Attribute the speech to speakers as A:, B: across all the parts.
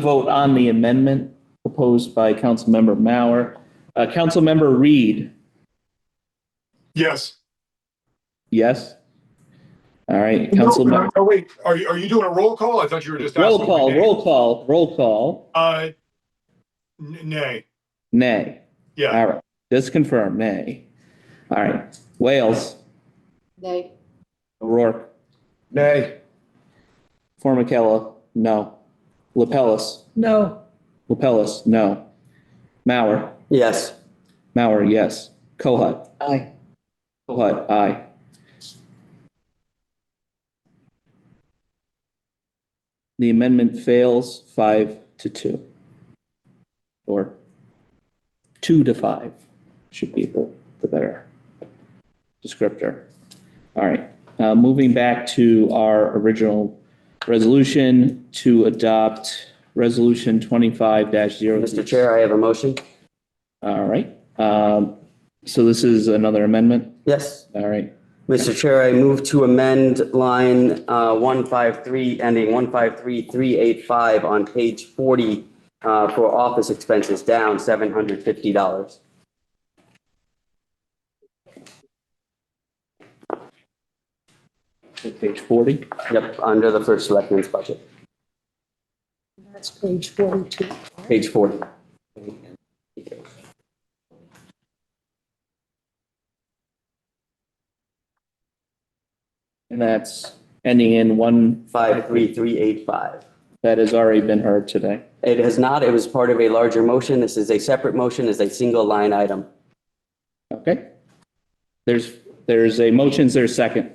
A: vote on the amendment proposed by Councilmember Mauer. Uh, Councilmember Reed,
B: Yes.
A: yes? All right,
B: No,
A: Councilmember,
B: no, wait, are you, are you doing a roll call? I thought you were just.
A: roll
B: asking for
A: call,
B: nay.
A: roll call, roll call,
B: Uh, n- nay,
A: nay.
B: yeah,
A: All right, just confirm, nay. All right, Wales,
C: Nay.
A: O'Rourke. Nay. Formicella, no. Lapellis,
C: No.
A: Lapellis, no. Mauer,
D: Yes.
A: Mauer, yes. Kohut,
D: Aye.
A: Kohut, aye. The amendment fails five to two. Or two to five should be the, the better descriptor. All right, uh, moving back to our original resolution to adopt resolution twenty-five dash zero.
D: Mr. Chair, I have a motion.
A: All right, um, so this is another amendment,
D: Yes.
A: all right.
D: Mr. Chair, I move to amend line uh, 153, ending 153385 on page 40 uh, for office expenses down $750.
A: Page forty.
D: Yep, under the first selectman's budget,
C: That's page 42.
D: page 40.
A: And that's ending in one,
D: 53385.
A: that has already been heard today.
D: It has not, it was part of a larger motion. This is a separate motion, is a single line item.
A: Okay? There's, there's a motion, is there a second?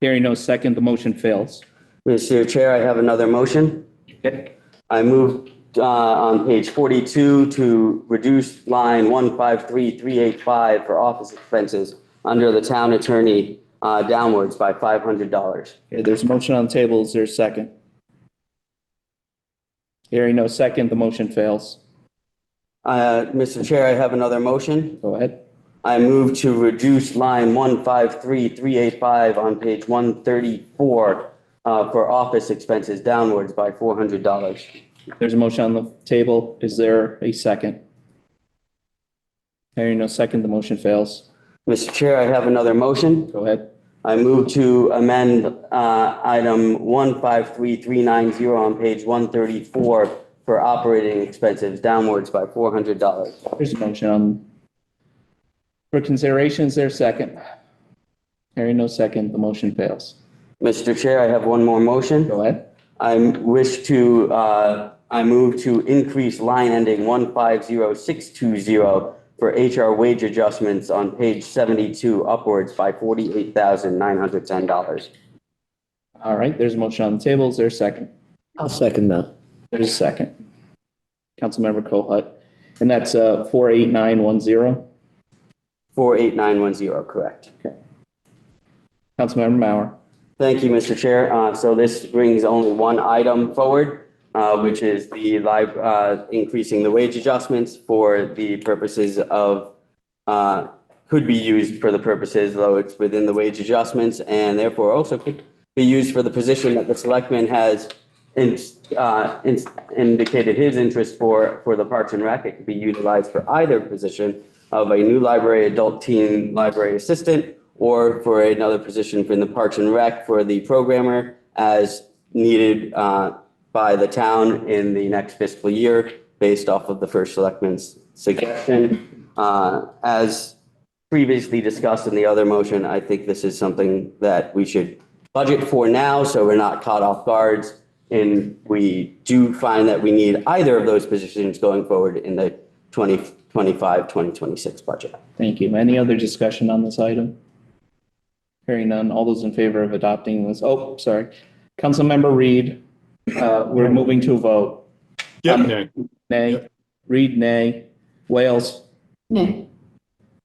A: Hearing no second, the motion fails.
D: Mr. Chair, I have another motion.
A: Okay.
D: I move uh, on page 42 to reduce line 153385 for office expenses under the town attorney uh, downwards by $500.
A: Okay, There's a motion on the table, is there a second? Hearing no second, the motion fails.
D: Uh, Mr. Chair, I have another motion.
A: Go ahead.
D: I move to reduce line 153385 on page 134 uh, for office expenses downwards by $400.
A: There's a motion on the table, is there a second? Hearing no second, the motion fails.
D: Mr. Chair, I have another motion.
A: Go ahead.
D: I move to amend uh, item 153390 on page 134 for operating expenses downwards by $400.
A: There's a motion on. For consideration, is there a second? Hearing no second, the motion fails.
D: Mr. Chair, I have one more motion.
A: Go ahead.
D: I wish to, uh, I move to increase line ending 150620 for HR wage adjustments on page 72 upwards by $48,910.
A: All right, there's a motion on the table. Is there a second?
E: I'll second that.
A: There's a second. Councilmember Kohut, and that's uh four eight nine one zero.
D: 48910, correct.
A: Councilmember Mauer.
D: Thank you, Mr. Chair. Uh, So this brings only one item forward, uh, which is the live, uh, increasing the wage adjustments for the purposes of, uh, could be used for the purposes, though it's within the wage adjustments, and therefore also could be used for the position that the selectman has in- uh, in- indicated his interest for, for the Parks and Rec. It could be utilized for either position of a new library, adult teen library assistant, or for another position in the Parks and Rec for the programmer as needed uh, by the town in the next fiscal year, based off of the first selectman's suggestion. Uh, As previously discussed in the other motion, I think this is something that we should budget for now, so we're not caught off guards. And we do find that we need either of those positions going forward in the 2025, 2026 budget.
A: Thank you. Any other discussion on this item? Hearing none. All those in favor of adopting this, oh, sorry. Councilmember Reed, uh, we're moving to a vote.
B: yeah,
A: Um,
B: nay.
A: Nay. Reed, nay. Wales.
C: Nay.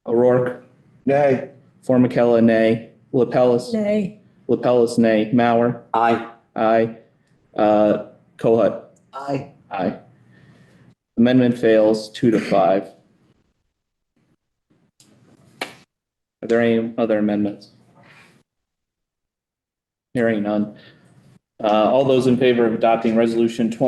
A: O'Rourke. Nay. Formicella, nay. Lapellis.
C: Nay.
A: Lapellis, nay. Mauer.
D: Aye.
A: Aye. Uh, Kohut.
E: Aye.
A: Aye. Amendment fails two to five. Are there any other amendments? Hearing none. Uh, all those in favor of adopting resolution twenty